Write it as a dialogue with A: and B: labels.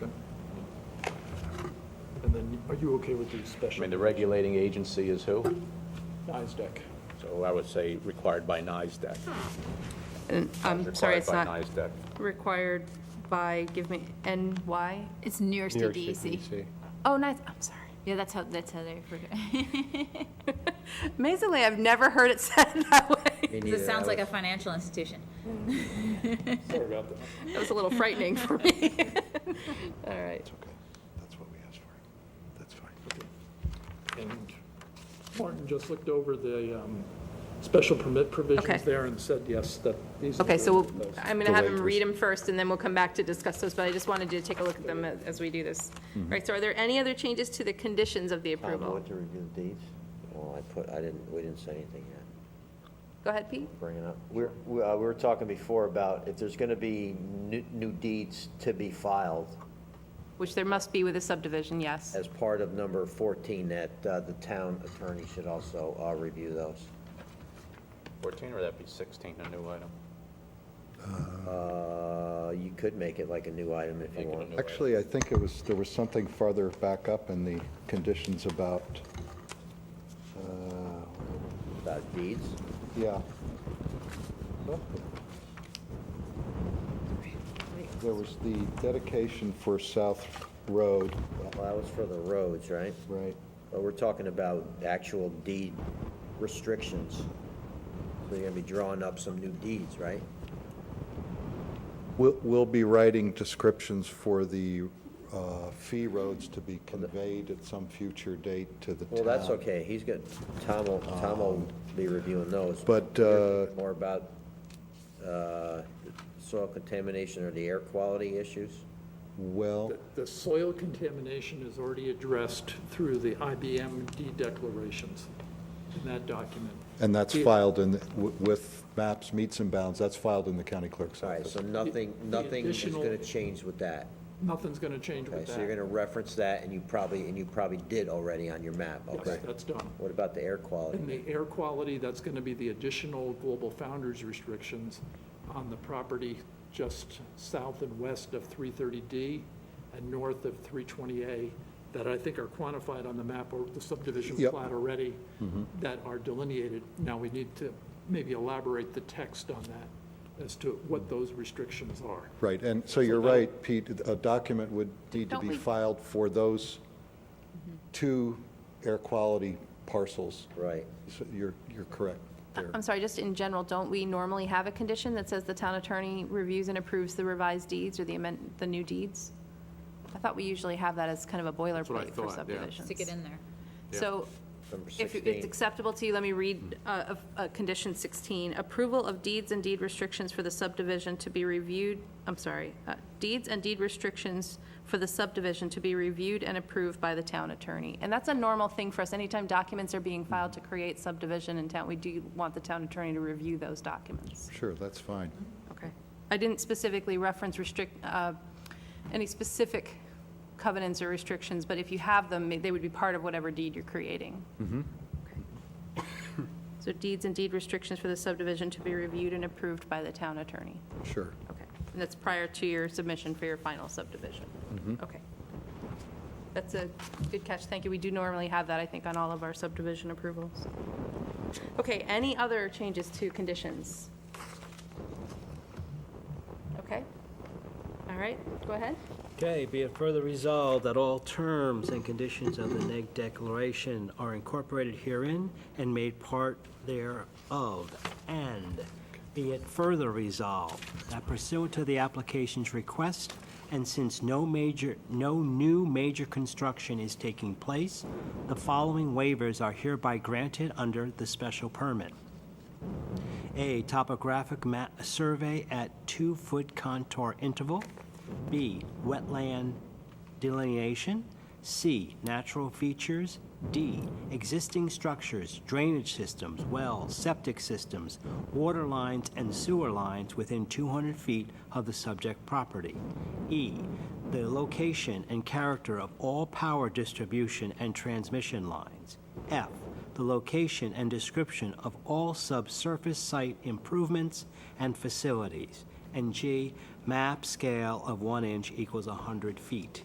A: Are you okay with the
B: I
A: special?
B: mean, the regulating agency is who?
A: NISDEC.
B: So I would say required by NISDEC.
C: And I'm sorry, it's not
B: Required by NISDEC.
C: required by, give me, NY?
D: It's New York State
C: E
D: DEC.
C: Oh, nice, I'm sorry.
D: Yeah, that's how, that's how they forget.
C: Amazingly, I've never heard it said that way.
D: It sounds like a financial institution.
A: Sorry about that.
C: That was a little frightening for me. All right.
A: Okay, that's what we asked for. That's fine. And Martin just looked over the um, special permit
C: Okay.
A: provisions there and said, yes, that these are.
C: Okay,
A: the-
C: so we'll-
A: those.
C: I'm going to have him read them first, and then we'll come back to discuss those, but I just wanted you to take a look at them as- as we do this. All right, so are there any other changes to the conditions of the
E: Tom, you
C: approval?
E: want to review the deeds? Well, I put, I didn't, we didn't say anything yet.
C: Go ahead, Pete.
E: Bring it up. We're, we uh, we were talking before about if there's going to be new new deeds to be filed
C: Which there must be with a subdivision, yes. Uh,
E: as part of number 14, that uh, the town attorney should also uh, review those.
B: 14, or that'd be 16, a new item?
E: Uh, You could make it like a new item if
B: Make
E: you
B: it a
E: want.
B: new item.
F: Actually, I think it was, there was something farther back up in the conditions about, uh,
E: About deeds?
F: yeah. There was the dedication for South Road,
E: Well, that was for the roads, right?
F: right?
E: But we're talking about actual deed restrictions. So you're going to be drawing up some new deeds, right?
F: We'll, we'll be writing descriptions for the uh, fee roads to be conveyed at some future date to the town.
E: Well, that's okay, he's got, Tom will, Tom will be reviewing those.
F: Um, But, uh,
E: More about uh, soil contamination or the air quality issues?
F: Well,
A: The- The soil contamination is already addressed through the IBMD declarations in that document.
F: and that's
A: Yeah.
F: filed in, the- wi- with maps, meets and bounds, that's filed in the county clerk's
E: All right,
F: office.
E: so nothing,
A: The- the
E: nothing is
A: additional-
E: going to change with that.
A: Nothing's going to change
E: Okay,
A: with
E: so you're going
A: that.
E: to reference that, and you probably, and you probably did already on your map, okay?
A: Yes, that's done.
E: What about the air
A: And
E: quality?
A: the air quality, that's going to be the additional Global Founders restrictions on the property just south and west of 330D and north of 320A that I think are quantified on the map or the subdivision
F: Yep. Mm-hmm.
A: plat already that are delineated. Now, we need to maybe elaborate the text on that as to what those restrictions are.
F: Right, and so you're right, Pete, a document would need to
C: Don't
F: be
C: we- Mm-hmm.
F: filed for those two air quality parcels.
E: Right.
F: So You're, you're correct there.
C: I'm sorry, just in general, don't we normally have a condition that says the town attorney reviews and approves the revised deeds or the amend, the new deeds? I thought we usually have that as kind of a
G: what I
C: boilerplate for
G: thought, yeah.
C: subdivisions.
D: Stick it in there.
C: So
E: Number
C: if
E: 16.
C: it's acceptable to you, let me read uh, of- uh, Condition 16. Approval of deeds and deed restrictions for the subdivision to be reviewed, I'm sorry, uh, deeds and deed restrictions for the subdivision to be reviewed and approved by the town attorney. And that's a normal thing for us. Anytime documents are being filed to create subdivision in town, we do want the town attorney to review those documents.
F: Sure, that's fine.
C: Okay. I didn't specifically reference restrict, uh, any specific covenants or restrictions, but if you have them, they would be part of whatever deed you're creating. Okay. So deeds and deed restrictions for the subdivision to be reviewed and approved by the town attorney.
F: Sure.
C: Okay. And that's prior to your submission for your final subdivision. Okay. That's a good catch. Thank you. We do normally have that, I think, on all of our subdivision approvals. Okay, any other changes to conditions? Okay. All right, go ahead.
H: Okay, be it further resolved that all terms and conditions of the neg declaration are incorporated herein and made part thereof, and be it further resolved that pursuant to the application's request, and since no major, no new major construction is taking place, the following waivers are hereby granted under the special permit. A, topographic ma survey at two-foot contour interval. B, wetland delineation. C, natural features. D, existing structures, drainage systems, wells, septic systems, water lines, and sewer lines within 200 feet of the subject property. E, the location and character of all power distribution and transmission lines. F, the location and description of all subsurface site improvements and facilities. And G, map scale of one inch equals 100 feet.